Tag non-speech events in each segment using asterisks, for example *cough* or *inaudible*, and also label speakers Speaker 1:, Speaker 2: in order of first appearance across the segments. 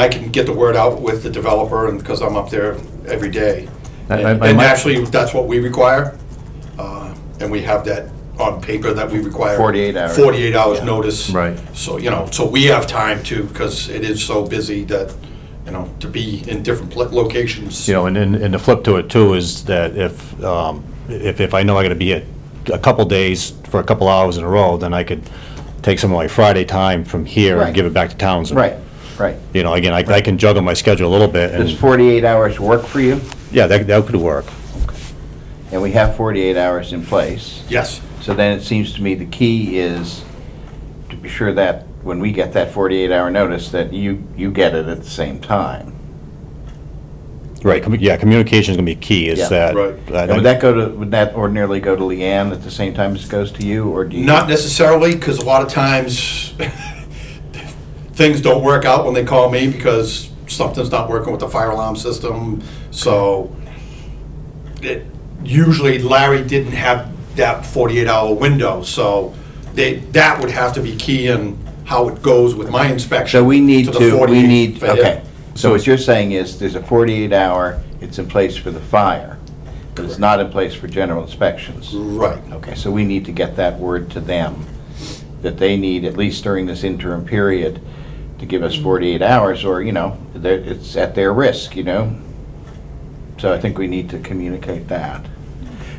Speaker 1: I can get the word out with the developer, and, because I'm up there every day.
Speaker 2: I- I- I
Speaker 1: And and
Speaker 2: might-
Speaker 1: actually, that's what we require, uh, and we have that on paper that we require.
Speaker 2: 48 hours.
Speaker 1: 48 hours notice.
Speaker 2: Right.
Speaker 1: So, you know, so we have time to, because it is so busy that, you know, to be in different pla- locations.
Speaker 3: You know, and, and and the flip to it too is that if, um, if, if I know I gotta be at a couple days for a couple hours in a row, then I could take some of my Friday time from here
Speaker 2: Right.
Speaker 3: and give it back to Townsend.
Speaker 2: Right, right.
Speaker 3: You know, again, I, I can juggle my schedule a little bit
Speaker 2: Does
Speaker 3: and,
Speaker 2: 48 hours work for you?
Speaker 3: yeah, that, that could work.
Speaker 2: And we have 48 hours in place.
Speaker 1: Yes,
Speaker 2: So then it seems to me the key is to be sure that when we get that 48-hour notice, that you, you get it at the same time.
Speaker 3: Right, commu- yeah, communication's gonna be key
Speaker 2: Yeah.
Speaker 3: is that.
Speaker 1: Right.
Speaker 3: I-
Speaker 2: And would that go to, would that ordinarily go to Leanne at the same time as it goes to you, or do you?
Speaker 1: not necessarily, because a lot of times, *laughs* things don't work out when they call me because something's not working with the fire alarm system, so it, usually Larry didn't have that 48-hour window, so they, that would have to be key in how it goes with my inspection.
Speaker 2: So we need
Speaker 1: the
Speaker 2: to,
Speaker 1: 48
Speaker 2: we need,
Speaker 1: fa-
Speaker 2: okay. So what you're saying is, there's a 48-hour, it's in place for the fire, but it's not in place for general inspections.
Speaker 1: Right.
Speaker 2: Okay, so we need to get that word to them, that they need, at least during this interim period, to give us 48 hours, or, you know, they're- it's at their risk, you know? So I think we need to communicate that. Do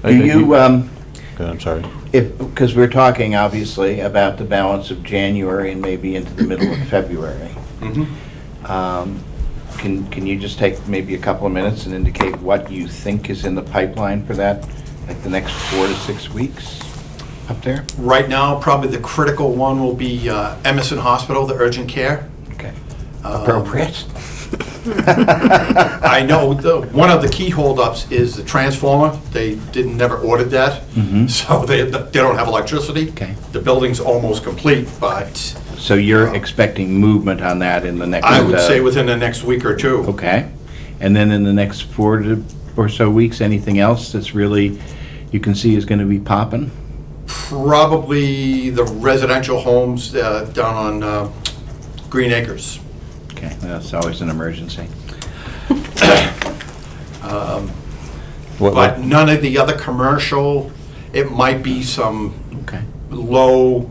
Speaker 3: think
Speaker 2: you,
Speaker 3: you-
Speaker 2: um,
Speaker 3: Okay, uh, I'm sorry.
Speaker 2: if, because we're talking, obviously, about the balance of January and maybe into the middle of February.
Speaker 1: Mhm.
Speaker 2: Um, Can, can you just take maybe a couple of minutes and indicate what you think is in the pipeline for that, like the next four to six weeks up there?
Speaker 1: Right now, probably the critical one will be uh, Emerson Hospital, the urgent care.
Speaker 2: Okay. Appropriate?
Speaker 1: I know, the, one of the key holdups is the transformer. They didn't, never ordered that, *laughs* so they, they don't have electricity.
Speaker 2: Mm-hmm. Okay.
Speaker 1: The building's almost complete, but
Speaker 2: So you're expecting movement on that in the next?
Speaker 1: I would
Speaker 2: uh,
Speaker 1: say within the next week or two.
Speaker 2: Okay. And then in the next four to, or so weeks, anything else that's really, you can see is going to be popping?
Speaker 1: Probably the residential homes uh, down on uh, Green Acres.
Speaker 2: Okay, that's always an emergency.
Speaker 3: What- what-
Speaker 1: But none of the other commercial, it might be some
Speaker 2: Okay.
Speaker 1: low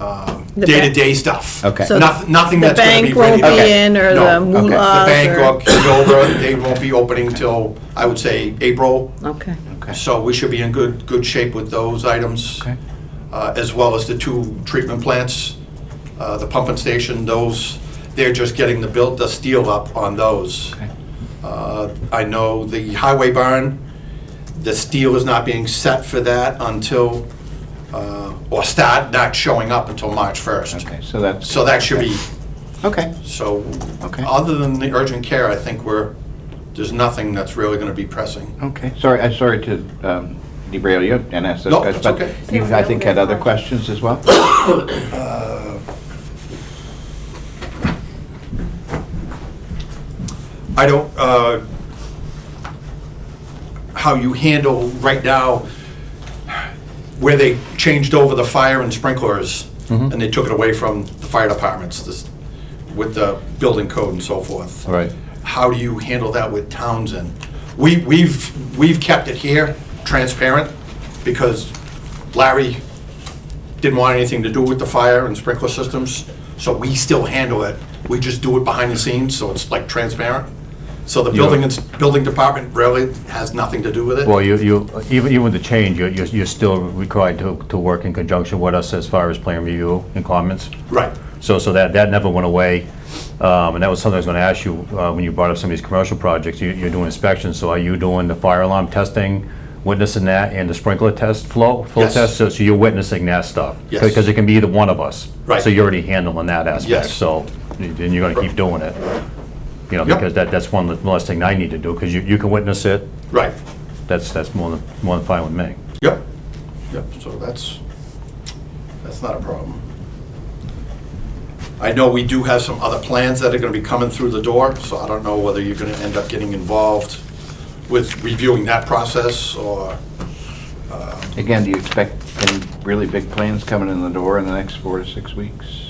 Speaker 1: um,
Speaker 4: The
Speaker 1: day-to-day stuff.
Speaker 2: Okay.
Speaker 4: So
Speaker 1: Noth- Nothing
Speaker 4: The
Speaker 1: that's gonna
Speaker 4: bank
Speaker 1: be
Speaker 4: won't
Speaker 1: ready to
Speaker 2: Okay.
Speaker 1: go.
Speaker 4: be in, or
Speaker 2: No,
Speaker 4: the
Speaker 2: okay.
Speaker 4: moolahs,
Speaker 2: The
Speaker 4: or...
Speaker 1: The bank will kick over, they won't be opening till, I would say, April.
Speaker 4: Okay.
Speaker 2: Okay.
Speaker 1: So we should be in good, good shape with those items.
Speaker 2: Okay.
Speaker 1: Uh, As well as the two treatment plants, uh, the pumping station, those, they're just getting the build, the steel up on those.
Speaker 2: Okay.
Speaker 1: Uh, I know the highway barn, the steel is not being set for that until, uh, or start not showing up until March 1st.
Speaker 2: Okay, so that's.
Speaker 1: So that should be
Speaker 2: Okay.
Speaker 1: so,
Speaker 2: Okay.
Speaker 1: other than the urgent care, I think we're, there's nothing that's really gonna be pressing.
Speaker 2: Okay, sorry, I'm sorry to um, derail you and ask those
Speaker 1: No,
Speaker 2: questions.
Speaker 1: it's
Speaker 2: but
Speaker 1: okay.
Speaker 2: You, I think, had other questions as well?
Speaker 1: I don't, uh, how you handle right now, where they changed over the fire and sprinklers, and they took it away from the fire departments, this, with the building code and so forth.
Speaker 3: All right.
Speaker 1: How do you handle that with Townsend? We, we've, we've kept it here, transparent, because Larry didn't want anything to do with the fire and sprinkler systems, so we still handle it. We just do it behind the scenes, so it's like transparent. So the building, ins- building department really has nothing to do with
Speaker 3: Well,
Speaker 1: it.
Speaker 3: you, you, even, even with the change, you're, you're you're still required to, to work in conjunction with us as far as plan review and comments.
Speaker 1: Right.
Speaker 3: So, so that, that never went away. Um, and that was something I was gonna ask you, uh, when you brought up some of these commercial projects, you, you're doing inspections, so are you doing the fire alarm testing, witnessing that, and the sprinkler test flow, flow
Speaker 1: Yes.
Speaker 3: test? So, so you're witnessing that stuff?
Speaker 1: Yes.
Speaker 3: Because it can be either one of us.
Speaker 1: Right.
Speaker 3: So you're already handling that aspect,
Speaker 1: Yes.
Speaker 3: so, and you're gonna keep doing it. You know,
Speaker 1: Yep.
Speaker 3: because that, that's one less thing I need to do, because you, you can witness it,
Speaker 1: Right.
Speaker 3: that's, that's more than, more than fine with me.
Speaker 1: Yep. Yep, so that's, that's not a problem. I know we do have some other plans that are gonna be coming through the door, so I don't know whether you're gonna end up getting involved with reviewing that process, or,
Speaker 2: Again, do you expect any really big plans coming in the door in the next four to six weeks?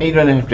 Speaker 2: And you don't have to